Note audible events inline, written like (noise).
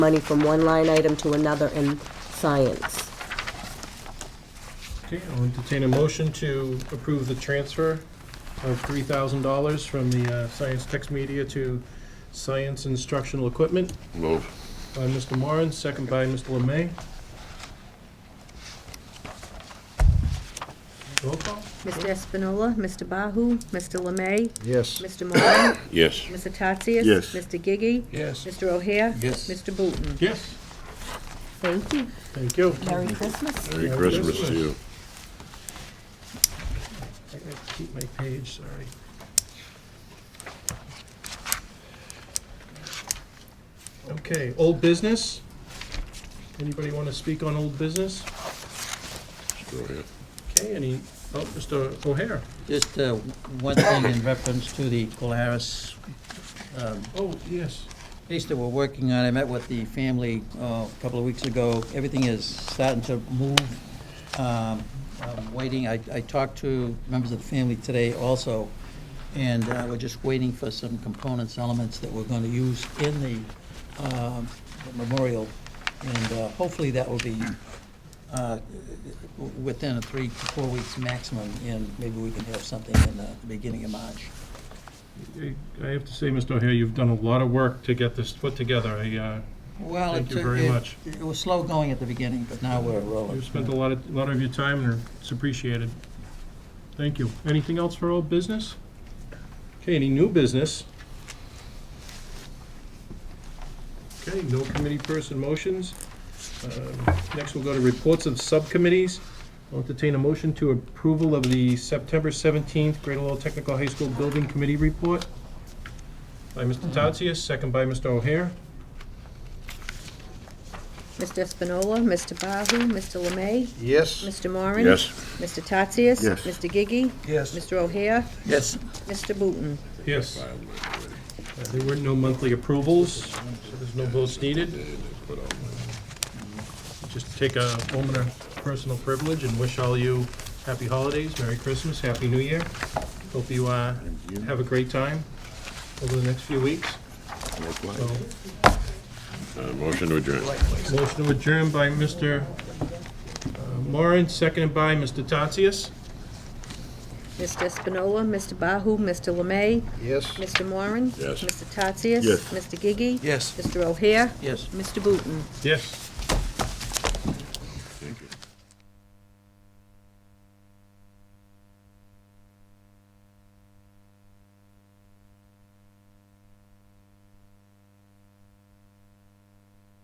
money from one line item to another in science. Okay, I'll entertain a motion to approve the transfer of three thousand dollars from the uh, Science Text Media to Science Instructional Equipment Move. by Mr. Moran, second by Mr. Lemay. Roll call? Mr. Espinola, Mr. Bahu, Mr. Lemay, Yes. Mr. (coughs) Moran, Yes. Mr. Tatsias. Yes. Mr. Gigi. Yes. Mr. O'Hare. Yes. Mr. Booton. Yes, Thank you. thank you. Merry Christmas. Merry Merry Christmas Christmas. to you. I gotta keep my page, sorry. Okay, old business? Anybody want to speak on old business? Sure, yeah. Okay, any, oh, Mr. O'Hare. Just uh, one thing in reference to the Polaris um, Oh, yes. case that we're working on. I met with the family uh, a couple of weeks ago. Everything is starting to move. Um, I'm Waiting, I I talked to members of the family today also, and uh, we're just waiting for some components, elements that we're going to use in the um, memorial. And uh, hopefully that will be uh, within a three to four weeks maximum, and maybe we can have something in the beginning of March. I have to say, Mr. O'Hare, you've done a lot of work to get this put together. I, uh, Well, Thank it you took, very it much. it was slow going at the beginning, but now we're rolling. you've spent a lot of, lot of your time, and it's appreciated. Thank you. Anything else for old business? Okay, any new business? Okay, no committee person motions. Um, Next, we'll go to reports of subcommittees. I'll entertain a motion to approval of the September 17th Greater Lowell Technical High School Building Committee Report by Mr. Tatsias, second by Mr. O'Hare. Mr. Espinola, Mr. Bahu, Mr. Lemay, Yes. Mr. Moran. Yes. Mr. Tatsias. Yes. Mr. Gigi. Yes. Mr. O'Hare. Yes. Mr. Booton. Yes. Uh, There were no monthly approvals, so there's no votes needed. Just take a moment of personal privilege and wish all you happy holidays, Merry Christmas, Happy New Year. Hope you uh, have a great time over the next few weeks. So, Likewise. Uh, Motion to adjourn. Motion to adjourn by Mr. uh, Moran, seconded by Mr. Tatsias. Mr. Espinola, Mr. Bahu, Mr. Lemay, Yes. Mr. Moran. Yes. Mr. Tatsias. Yes. Mr. Gigi. Yes. Mr. O'Hare. Yes. Mr. Booton. Yes.